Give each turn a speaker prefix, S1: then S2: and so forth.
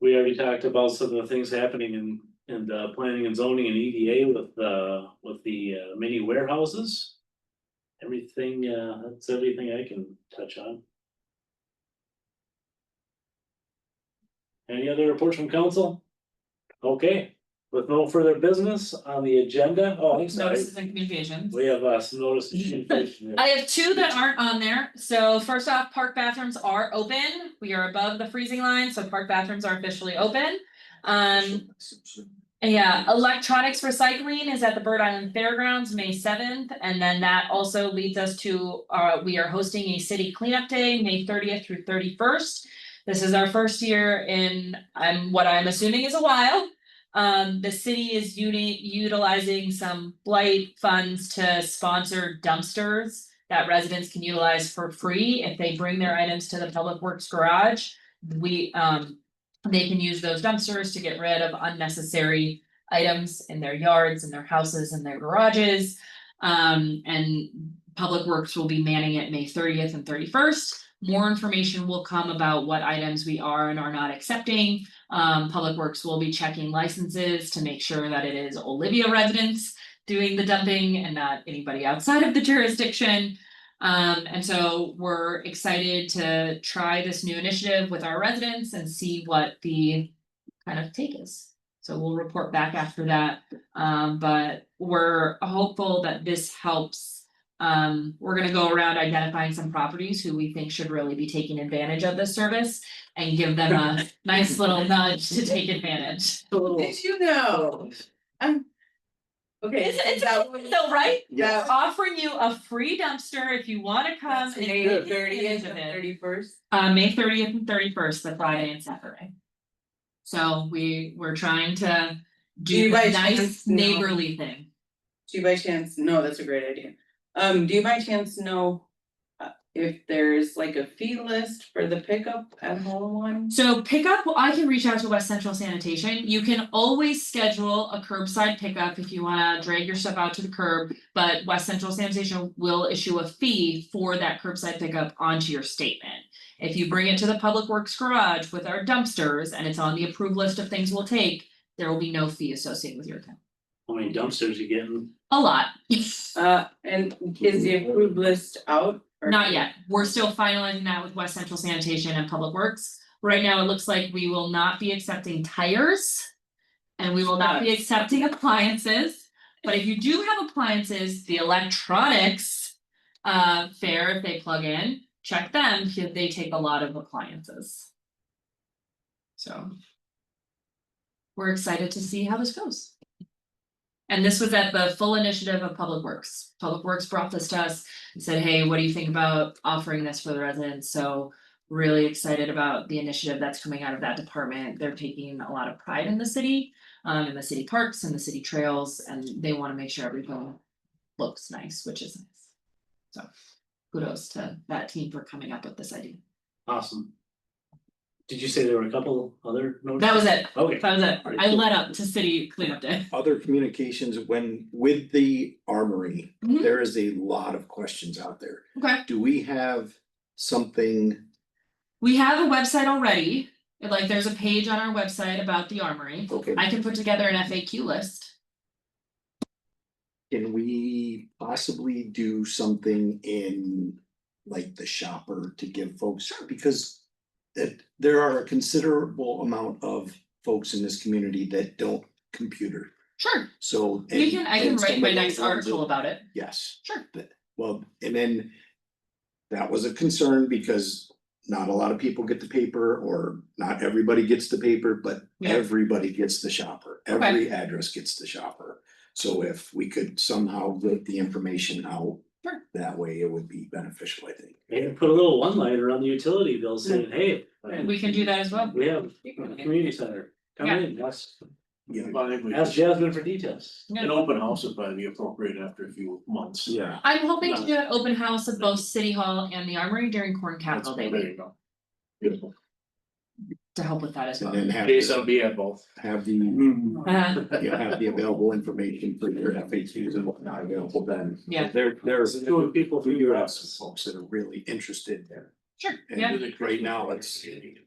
S1: we already talked about some of the things happening in, in the planning and zoning and EDA with, uh, with the uh, mini warehouses. Everything, uh, that's everything I can touch on. Any other reports from council? Okay, with no further business on the agenda, oh, I'm sorry,
S2: Notices and communications.
S1: we have, uh, some notice. and communication here.
S2: I have two that aren't on there, so first off, park bathrooms are open, we are above the freezing line, so park bathrooms are officially open. Um, yeah, electronics recycling is at the Bird Island Fairgrounds, May seventh, and then that also leads us to, uh, we are hosting a city cleanup day, May thirtieth through thirty-first. This is our first year in, I'm, what I'm assuming is a while. Um, the city is uni- utilizing some blight funds to sponsor dumpsters that residents can utilize for free if they bring their items to the Public Works Garage. We, um, they can use those dumpsters to get rid of unnecessary items in their yards and their houses and their garages. Um, and Public Works will be manning it May thirtieth and thirty-first. More information will come about what items we are and are not accepting. Um, Public Works will be checking licenses to make sure that it is Olivia residents doing the dumping and not anybody outside of the jurisdiction. Um, and so we're excited to try this new initiative with our residents and see what the kind of take is. So we'll report back after that, um, but we're hopeful that this helps. Um, we're gonna go around identifying some properties who we think should really be taking advantage of this service and give them a nice little nudge to take advantage.
S3: Did you know? I'm. Okay.
S2: It's, it's,
S3: that
S2: amazing though, right?
S3: Yeah.
S2: Offering you a free dumpster if you wanna come and take advantage
S3: Thirtieth
S2: of
S3: and
S2: it.
S3: thirty first.
S2: Uh, May thirtieth and thirty-first, the Friday and Saturday. So we, we're trying to do
S3: you
S2: a
S3: guys
S2: nice
S3: just know-
S2: neighborly thing.
S3: Do you by chance, no, that's a great idea. Um, do you by chance know? uh, If there's like a fee list for the pickup at home one?
S2: So pickup, well, I can reach out to West Central Sanitation. You can always schedule a curbside pickup if you wanna drag your stuff out to the curb. But West Central Sanitation will issue a fee for that curbside pickup onto your statement. If you bring it to the Public Works Garage with our dumpsters and it's on the approved list of things we'll take, there will be no fee associated with your account.
S1: How many dumpsters you getting?
S2: A lot.
S3: Uh, and is the approved list out? or-
S2: Not yet. We're still finalizing that with West Central Sanitation and Public Works. Right now, it looks like we will not be accepting tires. And we will not be accepting appliances. But if you do have appliances, the electronics uh fair, if they plug in, check them, because they take a lot of appliances. So. We're excited to see how this goes. And this was at the full initiative of Public Works. Public Works brought this to us and said, hey, what do you think about offering this for the residents? So really excited about the initiative that's coming out of that department. They're taking a lot of pride in the city, um, in the city parks and the city trails, and they want to make sure everything looks nice, which is nice. So kudos to that team for coming up with this idea.
S1: Awesome. Did you say there were a couple other notices?
S2: That was it.
S1: Okay,
S2: That was it. I led up to city cleanup day.
S4: Other communications, when with the armory,
S2: Mhm.
S4: there is a lot of questions out there.
S2: Okay.
S4: Do we have something?
S2: We have a website already. Like, there's a page on our website about the armory.
S4: Okay.
S2: I can put together an FAQ list.
S4: Can we possibly do something in like the shopper to give folks, because it, there are a considerable amount of folks in this community that don't computer,
S2: Sure.
S4: so.
S2: We can, I can
S4: and
S2: write
S4: some
S2: my
S4: of those
S2: next
S4: ones
S2: article
S4: will-
S2: about it.
S4: Yes.
S2: Sure.
S4: But- Well, and then that was a concern because not a lot of people get the paper or not everybody gets the paper, but
S2: Yeah.
S4: everybody gets the shopper.
S2: Okay.
S4: Every address gets the shopper. So if we could somehow get the information out
S2: Sure.
S4: that way, it would be beneficial, I think.
S1: maybe put a little one liner on the utility bill saying, hey.
S2: We can do that as well.
S1: We have a community center, come in, ask,
S4: Yeah.
S1: ask Jasmine for details.
S2: Yeah. An
S1: open house would probably be appropriate after a few months.
S4: Yeah.
S2: I'm hoping to do an open house of both City Hall and the Armory during Corn Capital Day week
S1: Beautiful.
S2: to help with that as
S4: And
S2: well.
S4: then have,
S1: Jason
S4: the-
S1: will be at both.
S4: have the,
S2: Uh,
S4: you have the available information for your FAQs and whatnot available then.
S2: Yeah.
S4: There, there's.
S1: Doing people
S4: We
S1: through
S4: do
S1: your
S4: have some
S1: houses.
S4: folks that are really interested there.
S2: sure, yeah.
S4: And right now, it's,